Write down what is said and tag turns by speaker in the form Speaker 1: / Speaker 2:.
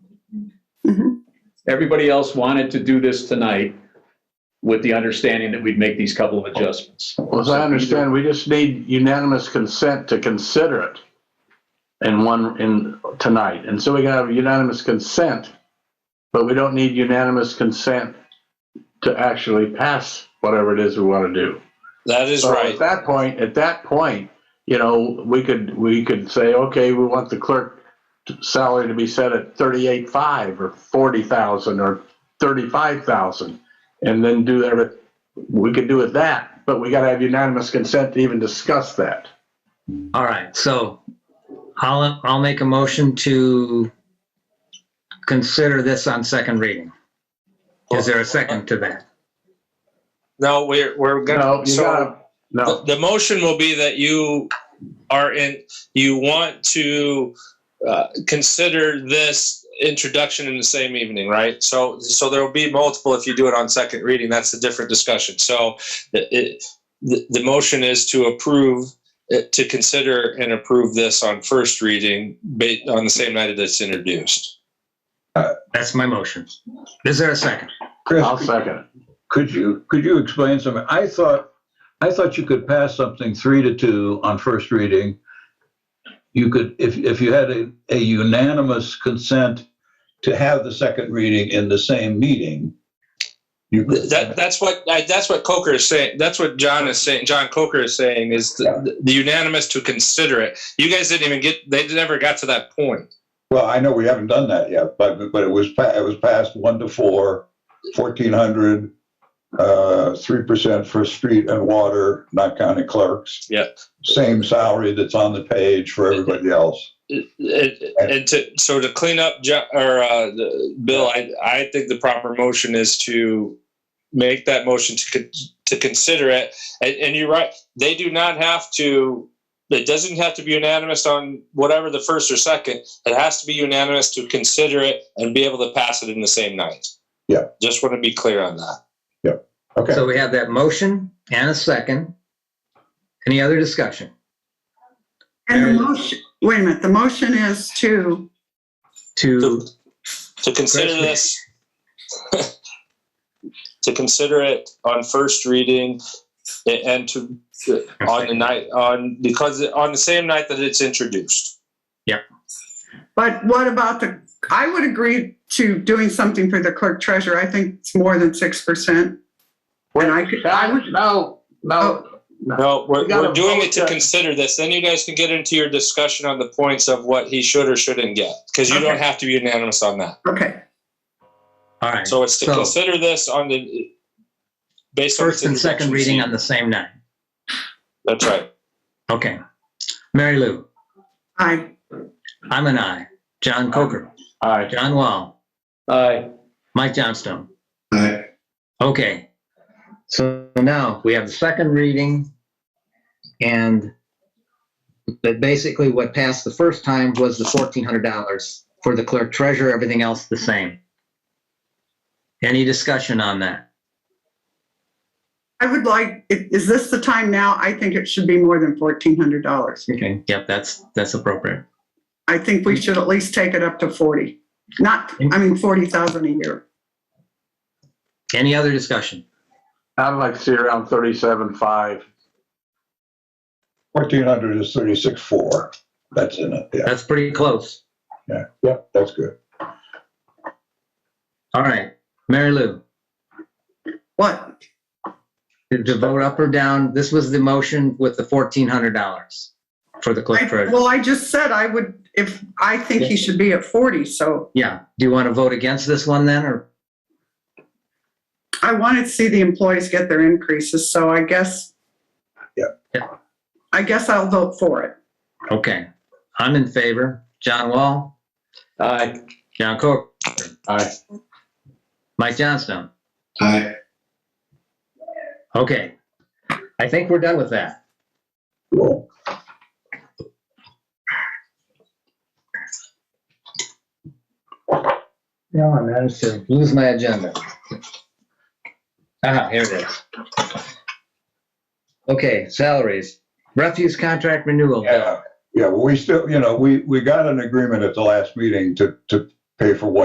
Speaker 1: Everybody else wanted to do this tonight with the understanding that we'd make these couple of adjustments.
Speaker 2: Well, as I understand, we just need unanimous consent to consider it in one, in, tonight. And so we gotta have unanimous consent, but we don't need unanimous consent to actually pass whatever it is we want to do.
Speaker 3: That is
Speaker 2: So
Speaker 3: right.
Speaker 2: At that point, at that point, you know, we could, we could say, okay, we want the clerk salary to be set at thirty-eight five or forty thousand or thirty-five thousand. And then do every, we could do it that, but we gotta have unanimous consent to even discuss that.
Speaker 4: All right, so I'll, I'll make a motion to consider this on second reading. Is there a second to that?
Speaker 3: No, we're, we're
Speaker 2: No,
Speaker 3: gonna,
Speaker 2: you
Speaker 3: so
Speaker 2: gotta,
Speaker 3: the
Speaker 2: no,
Speaker 3: the motion will be that you are in, you want to uh, consider this introduction in the same evening, right? So, so there will be multiple if you do it on second reading. That's a different discussion. So the- it, the, the motion is to approve, uh, to consider and approve this on first reading ba- on the same night that it's introduced.
Speaker 4: That's my motion. Is there a second?
Speaker 5: Chris,
Speaker 2: I'll second it.
Speaker 5: could you, could you explain something? I thought, I thought you could pass something three to two on first reading. You could, if, if you had a a unanimous consent to have the second reading in the same meeting. you could-
Speaker 3: That, that's what I, that's what Coker is saying. That's what John is saying. John Coker is saying is the, the unanimous to consider it. You guys didn't even get. They never got to that point.
Speaker 5: Well, I know we haven't done that yet, but, but it was, pa- it was passed one to four, 1,400, uh, 3% for street and water, not county clerks.
Speaker 3: Yeah.
Speaker 5: Same salary that's on the page for everybody else.
Speaker 3: It- it- and to, so to clean up, Jo- or uh, the- Bill, I, I think the proper motion is to make that motion to con- to consider it. And, and you're right. They do not have to. It doesn't have to be unanimous on whatever the first or second. It has to be unanimous to consider it and be able to pass it in the same night.
Speaker 5: Yeah.
Speaker 3: Just want to be clear on that.
Speaker 5: Okay.
Speaker 4: So we have that motion and a second. Any other discussion?
Speaker 6: And the
Speaker 4: Mary-
Speaker 6: motion, wait a minute, the motion is to,
Speaker 4: To,
Speaker 3: To consider this, to consider it on first reading a- and to, on the night, on, because, on the same night that it's introduced.
Speaker 6: but what about the, I would agree to doing something for the clerk treasurer. I think it's more than 6%. And I could, I would, oh,
Speaker 2: No, no,
Speaker 3: No, we're,
Speaker 2: We gotta
Speaker 3: we're doing it to
Speaker 2: vote that-
Speaker 3: consider this, then you guys can get into your discussion on the points of what he should or shouldn't get, because you don't
Speaker 6: Okay.
Speaker 3: have to be unanimous on that.
Speaker 6: okay,
Speaker 4: all right,
Speaker 3: So it's to
Speaker 4: So-
Speaker 3: consider this on the, based on.
Speaker 4: first and
Speaker 3: its
Speaker 4: second
Speaker 3: introduction.
Speaker 4: reading on the same night.
Speaker 3: That's right.
Speaker 4: Okay. Mary Lou,
Speaker 6: I,
Speaker 4: I'm an aye. John Coker,
Speaker 2: all right.
Speaker 4: John Wall,
Speaker 1: Aye.
Speaker 4: Mike Johnstone. Okay, so now we have the second reading and but basically what passed the first time was the fourteen hundred dollars for the clerk treasurer, everything else the same. Any discussion on that?
Speaker 6: I would like, i- is this the time now? I think it should be more than $1,400.
Speaker 4: Okay. Yep, that's, that's appropriate.
Speaker 6: I think we should at least take it up to 40, not, I mean, 40,000 a year.
Speaker 4: Any other discussion?
Speaker 2: I'd like to see around thirty-seven five.
Speaker 5: 1,400 is 36.4. That's in it, yeah,
Speaker 4: That's pretty close.
Speaker 5: yeah, yeah, that's good.
Speaker 4: All right, Mary Lou,
Speaker 6: What?
Speaker 4: to- to vote up or down, this was the motion with the fourteen hundred dollars for the clerk
Speaker 6: I-
Speaker 4: treasurer.
Speaker 6: Well, I just said I would, if, I think he should be at 40, so
Speaker 4: Yeah, do you want to vote against this one then, or
Speaker 6: I wanted to see the employees get their increases, so I guess.
Speaker 5: Yeah.
Speaker 4: Yeah.
Speaker 6: I guess I'll vote for it.
Speaker 4: Okay, I'm in favor. John Wall,
Speaker 1: Aye.
Speaker 4: John Coker,
Speaker 2: Aye.
Speaker 4: Mike Johnstone.
Speaker 2: Aye.
Speaker 4: Okay, I think we're done with that.
Speaker 5: Cool.
Speaker 4: No, I managed to lose my agenda. Ah, here it is. Okay, salaries, refuse contract renewal.
Speaker 5: Yeah, yeah, well, we still, you know, we, we got an agreement at the last meeting to, to pay for what